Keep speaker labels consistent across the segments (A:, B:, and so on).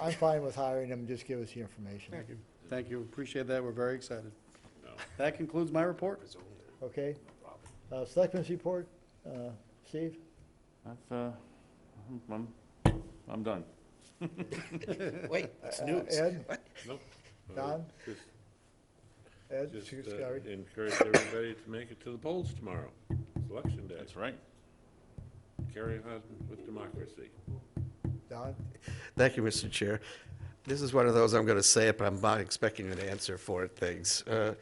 A: I'm fine with hiring him, just give us the information,
B: Thank you. Thank you. Appreciate that. We're very excited. That concludes my report.
A: okay? Uh, selectmen's report, uh, Steve?
C: I've, uh, I'm- I'm, I'm done.
D: Wait, it's
A: Uh,
D: news.
A: Ed?
E: Nope. Uh,
A: Don?
E: just-
A: Ed,
E: Just
A: Sc-
E: uh,
A: Scary?
E: encourage everybody to make it to the polls tomorrow, election day.
C: That's right.
E: Carry on with democracy.
A: Don?
D: Thank you, Mr. Chair. This is one of those, I'm going to say it, but I'm not expecting an answer for it things. Uh,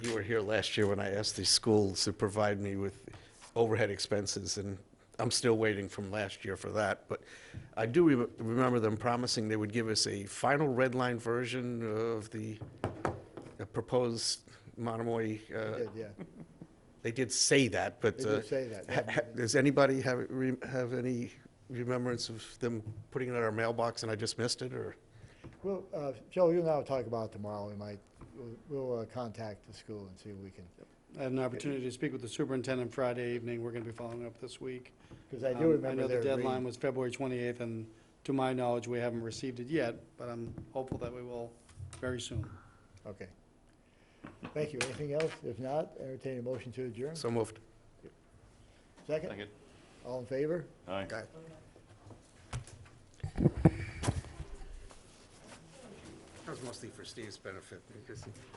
D: You were here last year when I asked the schools to provide me with overhead expenses, and I'm still waiting from last year for that. But I do re- remember them promising they would give us a final red line version of the uh, proposed Monomoy. uh,
A: Did, yeah.
D: They did say that, but.
A: They did
D: uh,
A: say that,
D: ha-
A: yeah.
D: ha- Does anybody have, re- have any remembrance of them putting it in our mailbox and I just missed it, or?
A: Well, uh, Joe, you and I will talk about it tomorrow, we might, we'll- we'll uh, contact the school and see if we can,
B: I had an opportunity to speak with the superintendent Friday evening. We're going to be following up this week.
A: because I
B: Um,
A: do remember
B: I know
A: their
B: the deadline
A: reading.
B: was February 28th, and to my knowledge, we haven't received it yet, but I'm hopeful that we will very soon.
A: Okay. Thank you, anything else? If not, entertain a motion to adjourn.
D: So moved.
A: Second,
C: Second.
A: all in favor?
C: Aye.
D: That was mostly for Steve's benefit, because